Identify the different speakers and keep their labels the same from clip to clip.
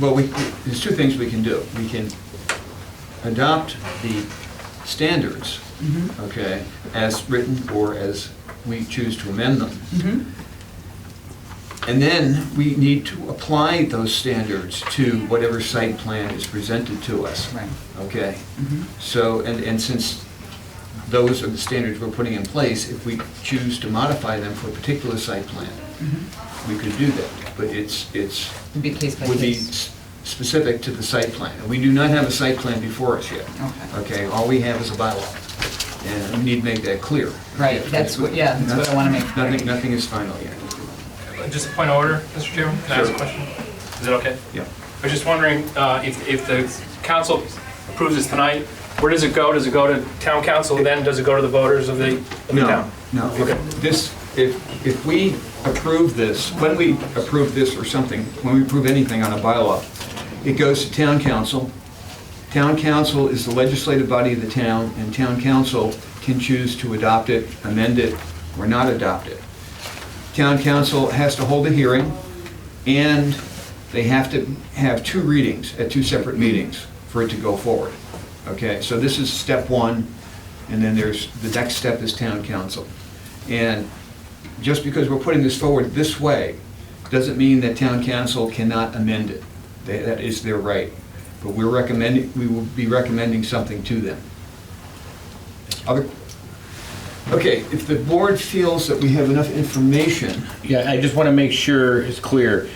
Speaker 1: Well, we, there's two things we can do. We can adopt the standards,
Speaker 2: Mhm.
Speaker 1: okay, as written or as we choose to amend them.
Speaker 2: Mhm.
Speaker 1: And then we need to apply those standards to whatever site plan is presented to us.
Speaker 2: Right.
Speaker 1: Okay?
Speaker 2: Mhm.
Speaker 1: So, and, and since those are the standards we're putting in place, if we choose to modify them for a particular site plan, we could do that. But it's, it's,
Speaker 2: Mm-hmm. It'd be case by
Speaker 1: would be
Speaker 2: case.
Speaker 1: s- specific to the site plan. And We do not have a site plan before us yet.
Speaker 2: Okay.
Speaker 1: Okay, all we have is a bylaw. And we need to make that clear.
Speaker 2: Right, that's what- yeah, that's what I wanna make clear.
Speaker 1: Nothing, nothing is final yet.
Speaker 3: Just a point of order, Mr. Chairman, can I ask a
Speaker 1: Sure.
Speaker 3: question? Is that okay?
Speaker 1: Yeah.
Speaker 3: I was just wondering uh, if, if the council approves this tonight, where does it go? Does it go to town council, then does it go to the voters of the of the
Speaker 1: No,
Speaker 3: town?
Speaker 1: no.
Speaker 3: Okay.
Speaker 1: If This, if, if we approve this, when we approve this or something, when we approve anything on a bylaw, it goes to town council. Town council is the legislative body of the town, and town council can choose to adopt it, amend it, or not adopt it. Town council has to hold a hearing, and they have to have two readings at two separate meetings for it to go forward. Okay, so this is step one, and then there's, the next step is town council. And just because we're putting this forward this way, doesn't mean that town council cannot amend it. They- That is their right. But we're recommending, we will be recommending something to them. Other- Okay, if the board feels that we have enough information,
Speaker 4: Yeah, I just want to make sure it's clear.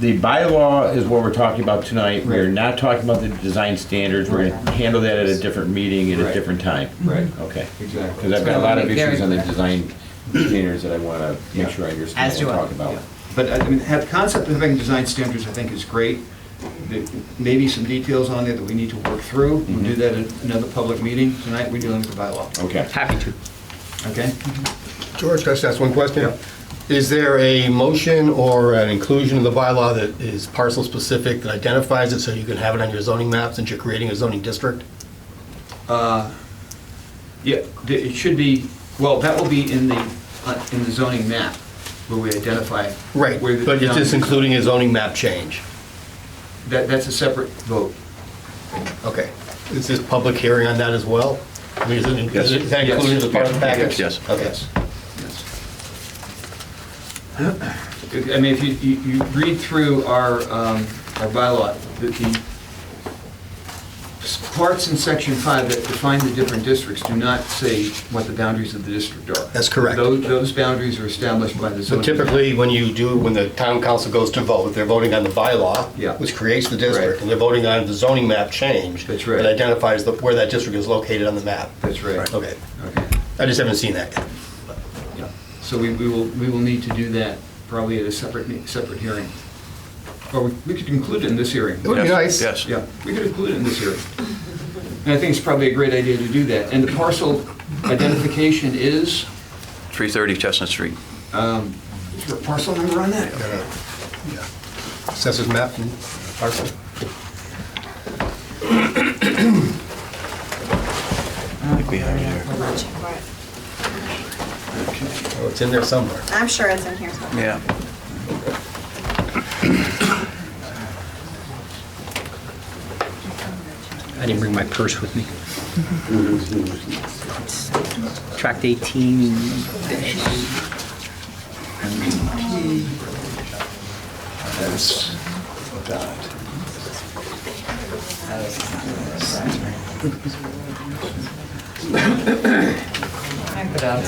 Speaker 4: The bylaw is what we're talking about tonight. We're
Speaker 1: Right.
Speaker 4: not talking about the design standards. We're going to handle that at a different meeting at
Speaker 1: Right.
Speaker 4: a different time.
Speaker 1: right?
Speaker 4: Okay.
Speaker 1: Oh, Exactly.
Speaker 4: Because I've got a lot of
Speaker 2: It's gonna be
Speaker 4: issues on the
Speaker 2: very
Speaker 4: design standards that I want to
Speaker 1: Yeah.
Speaker 4: make sure I understand
Speaker 2: As
Speaker 4: what
Speaker 2: do
Speaker 4: we're
Speaker 2: I.
Speaker 4: talking about.
Speaker 1: But I mean, have- the concept of having design standards, I think, is great. There may be some details on there that we need to work through.
Speaker 5: Mm-hmm.
Speaker 1: We'll do that at another public meeting. Tonight, we're dealing with the bylaw,
Speaker 4: Okay.
Speaker 6: Happy to.
Speaker 5: Oh.
Speaker 1: okay?
Speaker 5: George, can I just ask one question? Is there a motion or an inclusion in the bylaw that is parcel-specific that identifies it so you can have it on your zoning map since you're creating a zoning district?
Speaker 1: Yeah, th- it should be, well, that will be in the, uh, in the zoning map where we identify.
Speaker 5: Right,
Speaker 1: where the
Speaker 5: but it's just
Speaker 1: town-
Speaker 5: including a zoning map change.
Speaker 1: That, that's a separate vote.
Speaker 5: Okay. Is this public hearing on that as well? I mean, is it- is it- is that
Speaker 1: Yes.
Speaker 5: included as part of the package?
Speaker 6: Yes.
Speaker 5: Okay.
Speaker 1: Yes. I mean, if you, you you read through our, um, our bylaw, the, the parts in section five that define the different districts do not say what the boundaries of the district are.
Speaker 5: That's correct.
Speaker 1: Those, those boundaries are established by the
Speaker 5: So
Speaker 1: zoning.
Speaker 5: typically, when you do, when the town council goes to vote, they're voting on the bylaw,
Speaker 1: Yeah.
Speaker 5: which creates the
Speaker 1: Right.
Speaker 5: district, and they're voting on the zoning map change.
Speaker 1: That's right.
Speaker 5: That identifies the- where that district is located on the map.
Speaker 1: That's right.
Speaker 5: Okay.
Speaker 1: Okay.
Speaker 5: I just haven't seen that yet.
Speaker 1: Yeah. So we, we will, we will need to do that probably at a separate, me- separate hearing. Or we we could include it in this hearing.
Speaker 5: It would be nice.
Speaker 6: Yes.
Speaker 1: Yeah, we could include it in this hearing. And I think it's probably a great idea to do that. And the parcel identification is,
Speaker 6: 330 Chestnut Street.
Speaker 1: um, is there a parcel number on that?
Speaker 5: Assessors map hmm? and parcel.
Speaker 6: I think we have it here.
Speaker 7: Hold on, check for it.
Speaker 5: Oh, it's in there somewhere.
Speaker 7: I'm sure it's in here somewhere.
Speaker 6: Yeah.
Speaker 8: I didn't bring my purse with me. Tract 18.
Speaker 2: I put out.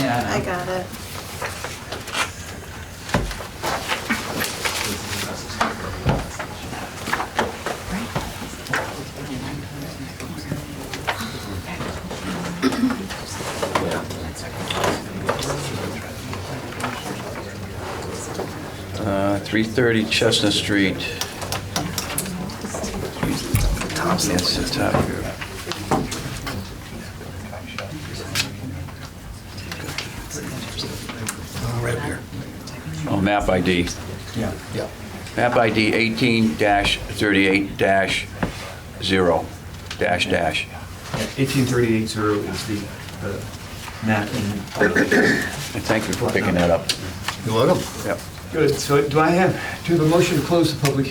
Speaker 2: Yeah, I
Speaker 7: I
Speaker 2: know.
Speaker 7: got it.
Speaker 6: Uh, 330 Chestnut Street. That's the top here. Oh, map ID.
Speaker 1: Yeah.
Speaker 5: Yeah.
Speaker 6: Map ID 18-38-0, dash, dash.
Speaker 1: Eighteen thirty-eight zero is the, the map in.
Speaker 6: And Thank you for picking that up.
Speaker 5: You welcome.
Speaker 6: Yep.
Speaker 1: Good, so do I have, do you have a motion to close the public